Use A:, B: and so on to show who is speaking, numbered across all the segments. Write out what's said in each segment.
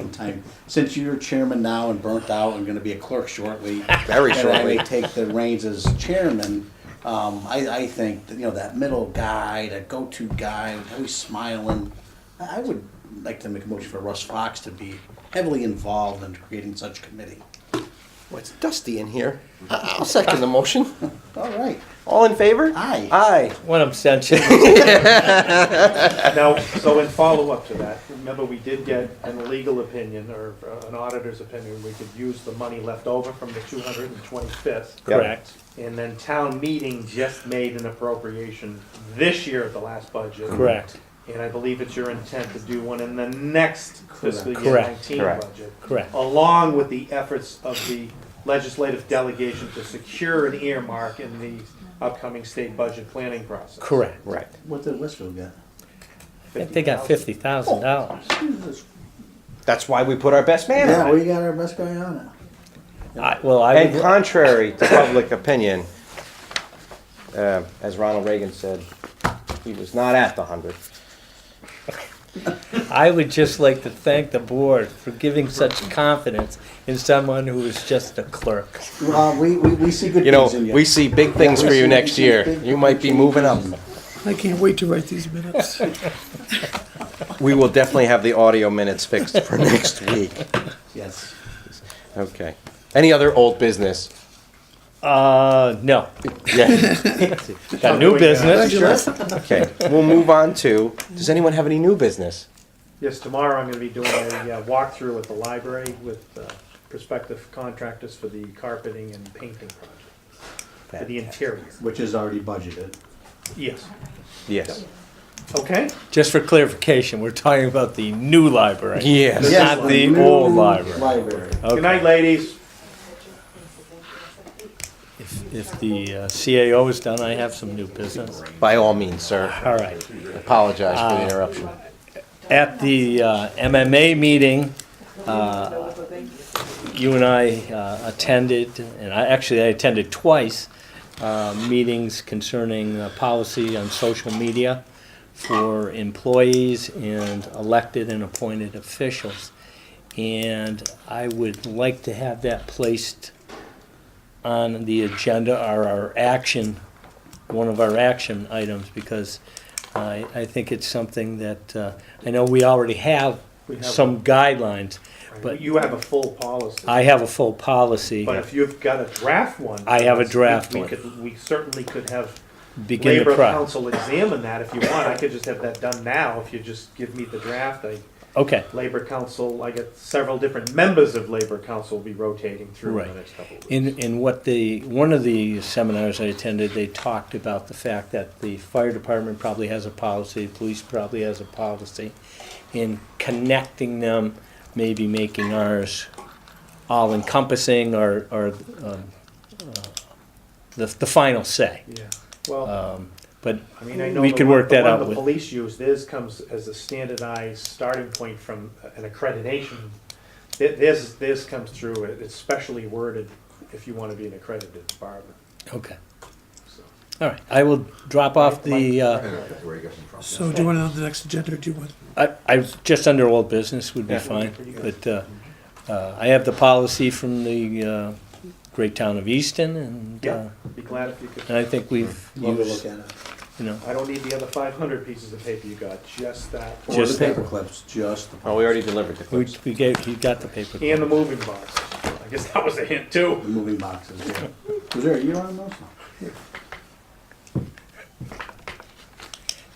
A: in time. Since you're chairman now and burnt out and gonna be a clerk shortly.
B: Very
A: And I may
B: shortly.
A: take the reins as chairman, um, I, I think, that, you know, that middle guy, that go-to guy, always smiling. I I would like to make a motion for Russ Fox to be heavily involved in creating such committee.
B: Well, it's dusty in here. I- I'll second the motion.
A: All right,
B: All in favor?
A: Aye.
B: Aye.
C: One abstention.
D: Now, so in follow-up to that, remember, we did get an legal opinion or uh, an auditor's opinion, we could use the money left over from the two hundred and twenty-fifth.
C: Correct.
D: And then town meeting just made an appropriation this year at the last budget.
C: Correct.
D: And I believe it's your intent to do one in the next fiscal year
C: Correct.
D: nineteen
B: Correct.
D: budget.
C: Correct.
D: Along with the efforts of the legislative delegation to secure an earmark in the upcoming state budget planning process.
C: Correct.
B: Right.
A: what did Westfield get?
C: I think they got
D: $50,000.
C: fifty thousand dollars.
B: That's why we put our best man
A: Yeah,
B: on it.
A: we got our best guy on it.
C: Well, I
B: And
C: would,
B: contrary to public opinion, uh, as Ronald Reagan said, he was not at the hundred.
C: I would just like to thank the board for giving such confidence in someone who is just a clerk.
A: Well, we, we, we see good
B: You know,
A: things in you.
B: we see big things
A: Yeah,
B: for
A: we
B: you
A: see-
B: next
A: we see
B: year.
A: big
B: You might be
A: things.
B: moving up.
E: I can't wait to write these minutes.
B: We will definitely have the audio minutes fixed for next week.
A: Yes.
B: Okay. Any other old business?
C: Uh, no,
B: Yeah,
C: got new business.
B: okay. We'll move on to, does anyone have any new business?
D: Yes, tomorrow I'm gonna be doing a uh, walkthrough at the library with uh, prospective contractors for the carpeting and painting project, for the interior.
A: Which is already budgeted.
D: Yes,
B: Yes.
D: okay?
C: Just for clarification, we're talking about the new library.
B: Yes.
C: Yes. Not the
A: new
C: old library. Oh,
A: Library.
D: Good night,
C: Okay.
D: ladies.
C: If, if the uh, CAO is done, I have some new business.
B: By all means, sir.
C: All right.
B: Apologize for the interruption.
C: At the uh, MMA meeting, uh, you and I uh, attended, and I, actually I attended twice, uh, meetings concerning uh, policy on social media for employees and elected and appointed officials. And I would like to have that placed on the agenda or our action, one of our action items, because I, I think it's something that, uh, I know we already have
D: We have-
C: some guidelines, but
D: You have a full policy,
C: I have a full policy,
D: but if you've got a draft one.
C: I have a draft
D: we
C: one.
D: could- We certainly could have
C: begin the
D: Labor
C: process.
D: Council examine that if you want. I could just have that done now if you just give me the draft. I
C: Okay,
D: Labor Council, I get several different members of Labor Council will be rotating through in the
C: Right.
D: next couple of weeks.
C: in, in what the, one of the seminars I attended, they talked about the fact that the fire department probably has a policy, police probably has a policy, in connecting them, maybe making ours all encompassing or, or, um, uh, the, the final say.
D: Yeah, well.
C: Um, But
D: I mean, I know
C: We
D: the
C: could
D: one-
C: work
D: the
C: that
D: one
C: out
D: The
C: with-
D: police use theirs comes as a standardized starting point from an accreditation. Thi- This this comes through. it- It's specially worded if you want to be an accredited department.
C: Okay.
D: So-
C: All right. I will drop off the, uh,
E: So do you want it on the next agenda or do you want?
C: I, I, just under old business would be
B: Yeah.
C: fine. But, uh, uh, I have the policy from the, uh, great town of Easton and, uh,
D: Yeah, be glad if you could.
C: and I think we've
A: Love to look
C: used,
A: at it.
C: you know,
D: I don't need the other five hundred pieces of paper you got. Just that
A: Or the
C: Just that.
A: paper clips, just the.
B: Oh, we already delivered the
C: we,
B: clips.
C: we gave, he got the paper.
D: and the moving box. I guess that was a hint too.
A: The moving boxes, yeah. Was there, you don't know?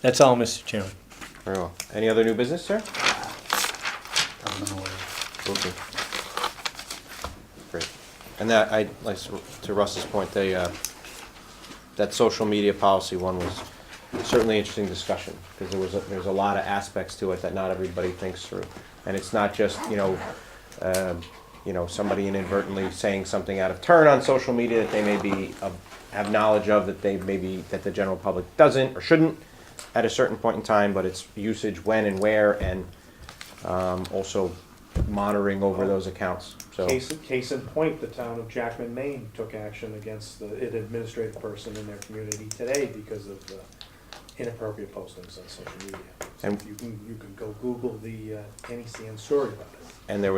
C: That's all, Mr. Chairman.
B: Very well. Any other new business, sir?
A: I don't know.
B: Okay. Great. And that, I, like, to Russ's point, they, uh, that social media policy one was certainly interesting discussion, because there was, a- there's a lot of aspects to it that not everybody thinks through. And it's not just, you know, um, you know, somebody inadvertently saying something out of turn on social media that they may be, uh, have knowledge of, that they maybe, that the general public doesn't or shouldn't at a certain point in time, but it's usage when and where, and um, also monitoring over those accounts, so.
D: Case case in point, the town of Jackman, Maine took action against the, an administrative person in their community today because of the inappropriate postings on social media.
B: And-
D: You can, you can go Google the uh, Kenny Sands story about it.
B: And there